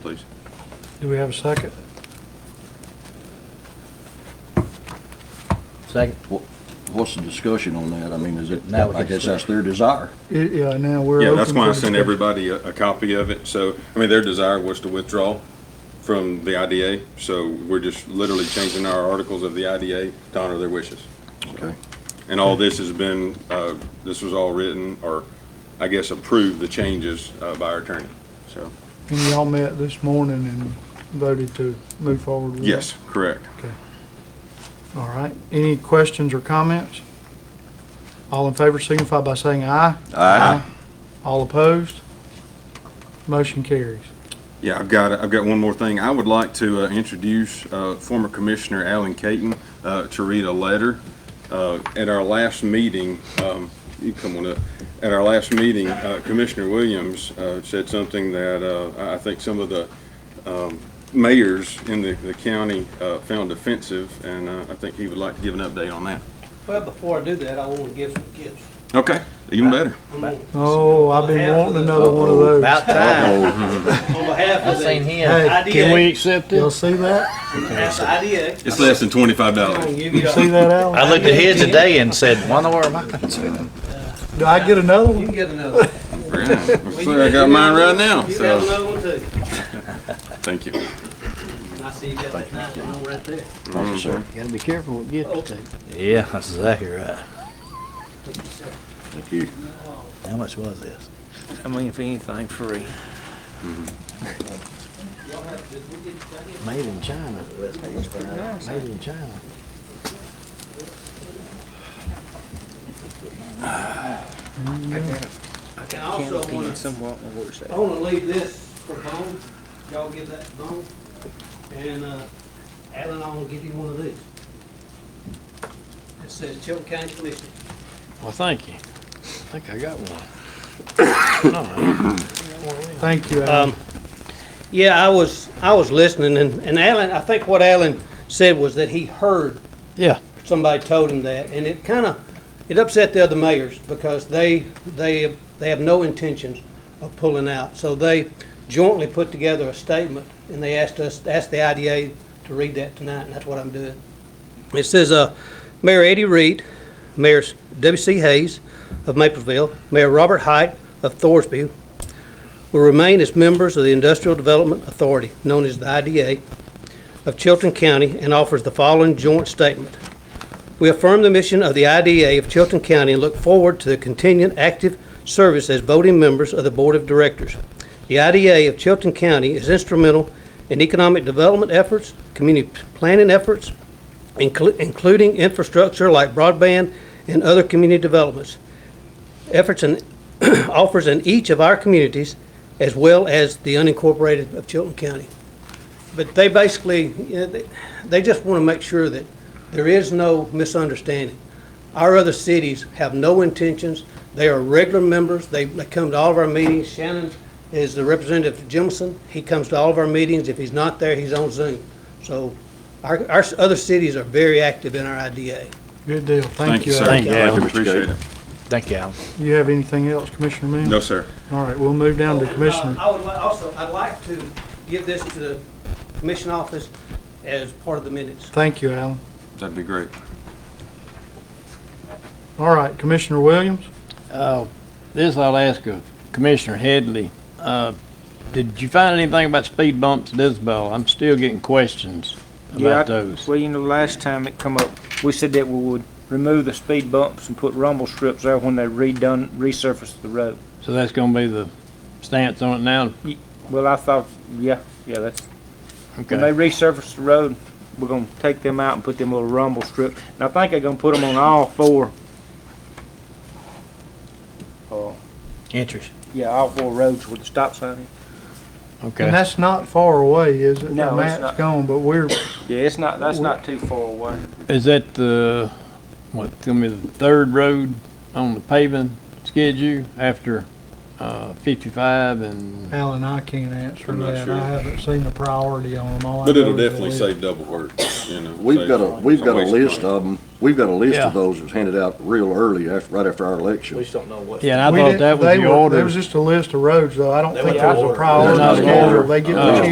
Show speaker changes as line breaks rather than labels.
please.
Do we have a second?
Second.
What- What's the discussion on that? I mean, is it,
That was
I guess
just-
that's their desire.
Yeah, now we're.
Yeah, that's
open
why
for
I sent
discussion.
everybody a, a copy of it. So, I mean, their desire was to withdraw from the IDA. So we're just literally changing our articles of the IDA to honor their wishes.
Okay.
And all this has been, uh, this was all written or, I guess, approved the changes, uh, by our attorney. So,
And y'all met this morning and voted to move forward with it?
yes, correct.
Okay. All right. Any questions or comments? All in favor signify by saying aye.
Aye.
All opposed? Motion carries.
Yeah, I've got, I've got one more thing. I would like to uh, introduce uh, former Commissioner Alan Caton uh, to read a letter. Uh, At our last meeting, um, you come on up, at our last meeting, uh, Commissioner Williams uh, said something that uh, I I think some of the um, mayors in the the county uh, found offensive, and uh, I think he would like to give an update on that.
Well, before I do that, I want to give some gifts.
Okay, even better.
I'm On
Oh, I've been wanting another one of those.
About time.
on behalf
I
of
seen
the
him.
Can
IDA,
accept it? Y'all see that?
that's the IDA,
It's less than twenty-five
I'm
dollars.
gonna give you,
See
a-
that, Alan?
I looked at his today and said, wonder where am I going to?
Do I get another
you
one?
can get another. one.
I got mine right now,
You
so,
got another one too.
thank you.
And I see you got that nice one right there.
Thank you, sir.
Gotta be careful what you get to. Yeah, that's exactly right.
Thank you.
How much was this?
I mean, if anything, free.
Mm-hmm. Made in China. Made in China.
I got
And also
canned
I wanna-
peas somewhere on my work
I
side.
want to leave this for home. Y'all give that to home. And, uh, Alan, I want to give you one of these. It says Chilton County Commission.
Well, thank you. I think I got one.
Thank you,
Um,
Alan.
Um, Yeah, I was, I was listening and, and Alan, I think what Alan said was that he heard
Yeah.
somebody told him that, and it kind of, it upset the other mayors because they, they, they have no intentions of pulling out. So they jointly put together a statement, and they asked us, asked the IDA to read that tonight, and that's what I'm doing. It says, uh, Mayor Eddie Reed, Mayor W.C. Hayes of Mapleville, Mayor Robert Height of Thorsby will remain as members of the Industrial Development Authority, known as the IDA, of Chilton County, and offers the following joint statement. We affirm the mission of the IDA of Chilton County and look forward to the continued active service as voting members of the Board of Directors. The IDA of Chilton County is instrumental in economic development efforts, community planning efforts, inclu- including infrastructure like broadband and other community developments. Efforts and offers in each of our communities as well as the unincorporated of Chilton County. But they basically, you know, they- they just want to make sure that there is no misunderstanding. Our other cities have no intentions. They are regular members. They they come to all of our meetings. Shannon is the representative of Jemison. He comes to all of our meetings. If he's not there, he's on Zoom. So our, our s- other cities are very active in our IDA.
Good deal.
Thank you, sir.
Alan.
Thank you, Alan.
Appreciate it.
Thank you, Alan.
You have anything else, Commissioner Moon?
No, sir.
All right, we'll move down to
Oh, uh,
Commissioner.
I would li- also, I'd like to give this to the commission office as part of the minutes.
Thank you, Alan.
That'd be great.
All right, Commissioner Williams?
Uh, this I'll ask of Commissioner Headley. Uh, did you find anything about speed bumps at Isabel? I'm still getting questions
Yeah, I-
about those.
Well, you know, last time it come up, we said that we would remove the speed bumps and put rumble strips there when they redone, resurfaced the road.
So that's gonna be the stance on it now?
Well, I thought, yeah, yeah, that's, when they
Okay.
resurface the road, we're gonna take them out and put them little rumble strip. And I think they're gonna put them on all four. Oh,
Interest.
yeah, all four roads with the stop sign.
And
Okay.
that's not far away, is it?
No, it's
Matt's
not.
gone, but we're,
Yeah, it's not, that's not too far away.
Is that the, what, gonna be the third road on the paving schedule after, uh, fifty-five and,
Alan, I can't answer
I'm not
that.
sure.
I haven't seen the priority on them. All I
But
know
it'll
is the
definitely
list.
save double work, you know.
We've
save-
got a, we've got a
waste
list
money.
of them. We've got a list
Yeah.
of those that was handed out real early, after, right after our election.
don't know what.
yeah, and
We
I thought
didn't-
that was
they
the
were-
order.
There was just a list of roads, though. I don't
They
think
were
there was a
ordered.
priority
They're not
schedule.
ordered. Oh.
They get
No.
to